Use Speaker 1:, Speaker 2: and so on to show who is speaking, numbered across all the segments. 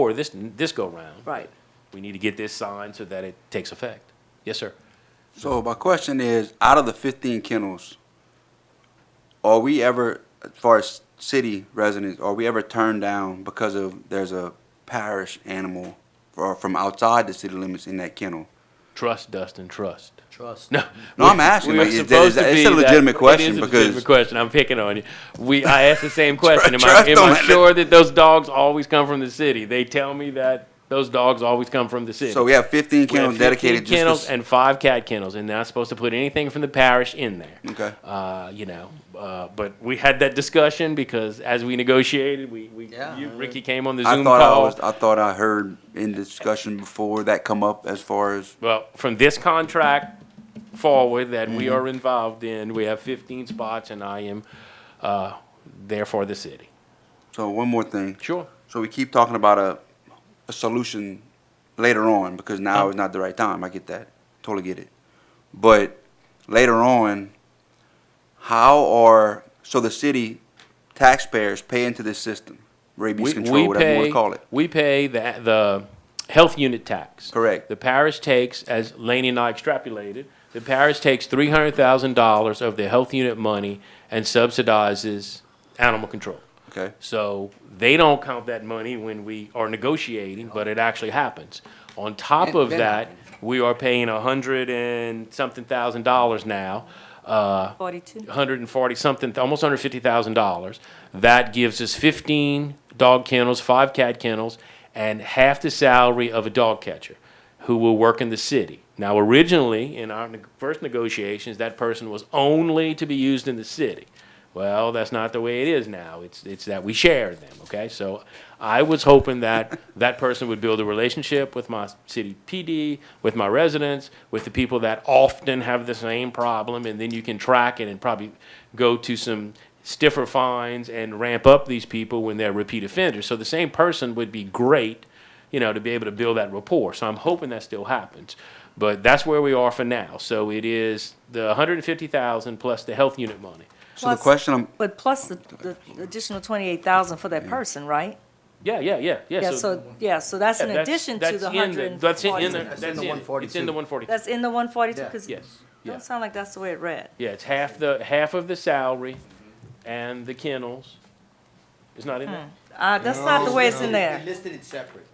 Speaker 1: for this, this go-round.
Speaker 2: Right.
Speaker 1: We need to get this signed so that it takes effect. Yes, sir.
Speaker 3: So my question is, out of the fifteen kennels, are we ever, as far as city residents, are we ever turned down because of there's a parish animal or from outside the city limits in that kennel?
Speaker 1: Trust, Dustin, trust.
Speaker 4: Trust.
Speaker 1: No,
Speaker 3: No, I'm asking,
Speaker 1: we
Speaker 3: like,
Speaker 1: were
Speaker 3: is that-
Speaker 1: supposed
Speaker 3: is that-
Speaker 1: to
Speaker 3: it's
Speaker 1: be
Speaker 3: a legitimate question
Speaker 1: It is a
Speaker 3: because-
Speaker 1: legitimate question. I'm picking on you. We, I asked the same question. Am I,
Speaker 3: Trust
Speaker 1: am I
Speaker 3: on it.
Speaker 1: sure that those dogs always come from the city? They tell me that those dogs always come from the city.
Speaker 3: So we have
Speaker 1: We
Speaker 3: fifteen
Speaker 1: have
Speaker 3: kennels dedicated
Speaker 1: 15 kennels
Speaker 3: just for.
Speaker 1: and five cat kennels, and not supposed to put anything from the parish in there.
Speaker 3: Okay.
Speaker 1: Uh, you know, uh, but we had that discussion because as we negotiated, we, we
Speaker 4: Yeah.
Speaker 1: you, Ricky came on the
Speaker 3: I
Speaker 1: Zoom
Speaker 3: thought I
Speaker 1: call.
Speaker 3: was, I thought I heard in discussion before that come up as far as,
Speaker 1: well, from this contract forward that
Speaker 3: Mm-hmm.
Speaker 1: we are involved in, we have 15 spots, and I am uh, there for the city.
Speaker 3: so one more thing.
Speaker 1: Sure.
Speaker 3: So we keep talking about a, a solution later on because now is not the right time. I get that. Totally get it. But later on, how are, so the city taxpayers pay into this system, rabies
Speaker 1: We,
Speaker 3: control,
Speaker 1: we
Speaker 3: whatever you want
Speaker 1: pay.
Speaker 3: to call it.
Speaker 1: We pay the the health unit tax.
Speaker 3: Correct.
Speaker 1: The parish takes, as Laney and I extrapolated, the parish takes three hundred thousand dollars of the health unit money and subsidizes animal control.
Speaker 3: Okay.
Speaker 1: So they don't count that money when we are negotiating, but it actually happens. On top of
Speaker 4: been
Speaker 1: that, we are paying a hundred and something thousand dollars now, uh,
Speaker 2: 42.
Speaker 1: 140 something, almost $150,000. That gives us 15 dog kennels, five cat kennels, and half the salary of a dog catcher who will work in the city. Now, originally, in our neg- first negotiations, that person was only to be used in the city. Well, that's not the way it is now. It's, it's that we share them, okay? So I was hoping that that person would build a relationship with my city PD, with my residents, with the people that often have the same problem, and then you can track it and probably go to some stiffer fines and ramp up these people when they're repeat offenders. So the same person would be great, you know, to be able to build that rapport. So I'm hoping that still happens. But that's where we are for now. So it is the 150,000 plus the health unit money.
Speaker 3: So the question I'm,
Speaker 2: But plus the, the additional twenty-eight thousand for that person, right?
Speaker 1: Yeah, yeah, yeah, yeah.
Speaker 2: Yeah, so, yeah, so that's in
Speaker 1: Yeah, that's-
Speaker 2: addition to
Speaker 1: that's
Speaker 2: the
Speaker 1: in
Speaker 2: hundred and
Speaker 1: That's in, in the,
Speaker 2: forty.
Speaker 1: that's in, it's in the 142.
Speaker 2: That's in the one forty-two,
Speaker 4: Yeah.
Speaker 2: because it
Speaker 1: Yes, yeah.
Speaker 2: don't sound like that's the way it read.
Speaker 1: Yeah, it's half the, half of the salary and the kennels. It's not in there?
Speaker 2: Uh, that's not the way it's in there.
Speaker 4: They listed it separate.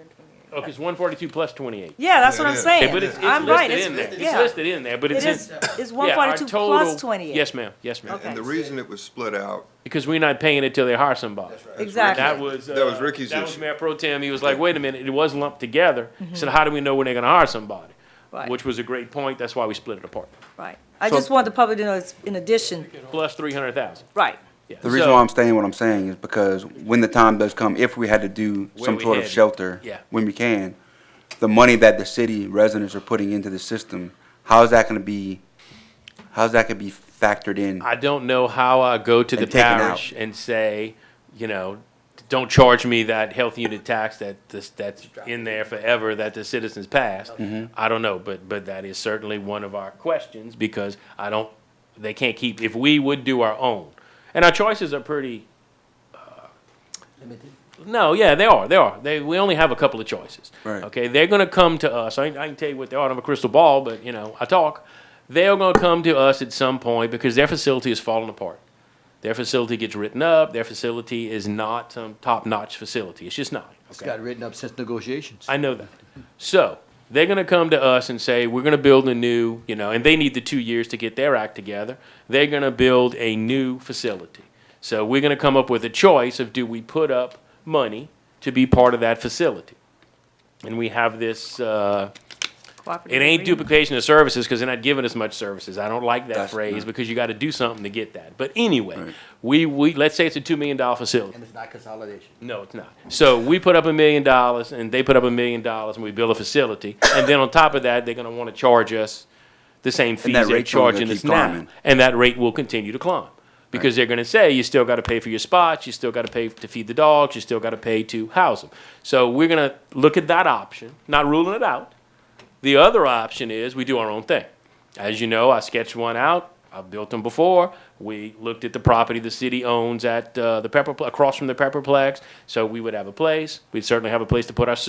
Speaker 1: Oh, it's 142 plus 28.
Speaker 2: Hmm. Yeah, that's what I'm
Speaker 1: Okay,
Speaker 2: saying.
Speaker 1: but it's, it's
Speaker 2: I'm right,
Speaker 1: listed
Speaker 2: it's,
Speaker 1: in there. It's
Speaker 2: yeah.
Speaker 1: listed in there, but
Speaker 2: It
Speaker 1: it's
Speaker 2: is,
Speaker 1: in.
Speaker 2: it's one
Speaker 1: yeah, our
Speaker 2: forty-two
Speaker 1: total-
Speaker 2: plus twenty-eight.
Speaker 1: Yes, ma'am, yes, ma'am.
Speaker 2: Okay.
Speaker 5: And the reason it was split out,
Speaker 1: Because we're not paying until they hire somebody.
Speaker 2: Exactly.
Speaker 1: That was.
Speaker 5: That was
Speaker 1: uh,
Speaker 5: Ricky's
Speaker 1: That was
Speaker 5: issue.
Speaker 1: Mayor Pro Tem. He was like, wait a minute, it was lumped together. He said, how do we know when they're gonna hire somebody?
Speaker 2: Mm-hmm. Right.
Speaker 1: Which was a great point. That's why we split it apart.
Speaker 2: Right. I
Speaker 3: So-
Speaker 2: just want the public to know it's in addition,
Speaker 1: Plus 300,000.
Speaker 2: right.
Speaker 1: Yeah.
Speaker 3: the reason
Speaker 1: So-
Speaker 3: why I'm saying what I'm saying is because when the time does come, if we had to do
Speaker 1: Where
Speaker 3: some
Speaker 1: we
Speaker 3: sort of
Speaker 1: had-
Speaker 3: shelter,
Speaker 1: yeah.
Speaker 3: when we can, the money that the city residents are putting into the system, how is that gonna be, how's that gonna be factored in?
Speaker 1: I don't know how I go to the
Speaker 3: And take it out.
Speaker 1: parish and say, you know, don't charge me that health unit tax that this, that's in there forever that the citizens passed. I don't know, but but that is certainly one of our questions because I don't. They can't keep if we would do our own, and our choices are pretty
Speaker 4: Limited.
Speaker 1: no, yeah, they are. They are. They, we only have a couple of choices.
Speaker 3: Right.
Speaker 1: Okay, they're going to come to us. I, I can tell you what they are. I don't have a crystal ball, but you know, I talk. They're going to come to us at some point because their facility is falling apart. Their facility gets written up. Their facility is not some top-notch facility. It's just not.
Speaker 4: It's got written up since negotiations.
Speaker 1: I know that. So they're going to come to us and say, we're going to build a new, you know, and they need the two years to get their act together. They're going to build a new facility. So we're going to come up with a choice of do we put up money to be part of that facility? And we have this, uh, it
Speaker 2: Cooperative
Speaker 1: ain't
Speaker 2: agreement.
Speaker 1: duplication of services because they're not giving us much services. I don't like that
Speaker 3: That's-
Speaker 1: phrase because you got to do something to get that. But anyway, we, we, let's say it's a $2 million facility.
Speaker 4: And it's not consolidation.
Speaker 1: No, it's not. So we put up a million dollars and they put up a million dollars and we build a facility. And then on top of that, they're gonna wanna charge us the same fees
Speaker 3: that
Speaker 1: they're
Speaker 3: rate's only gonna
Speaker 1: charging us
Speaker 3: keep
Speaker 1: now.
Speaker 3: climbing.
Speaker 1: And that rate will continue to climb. Because they're gonna say, you still gotta pay for your spots, you still gotta pay to feed the dogs, you still gotta pay to house them. So we're gonna look at that option, not ruling it out. The other option is we do our own thing. As you know, I sketched one out. I've built them before. We looked at the property the city owns at uh, the Pepper, across from the Pepperplex. So we would have a place. We'd certainly have a place to put our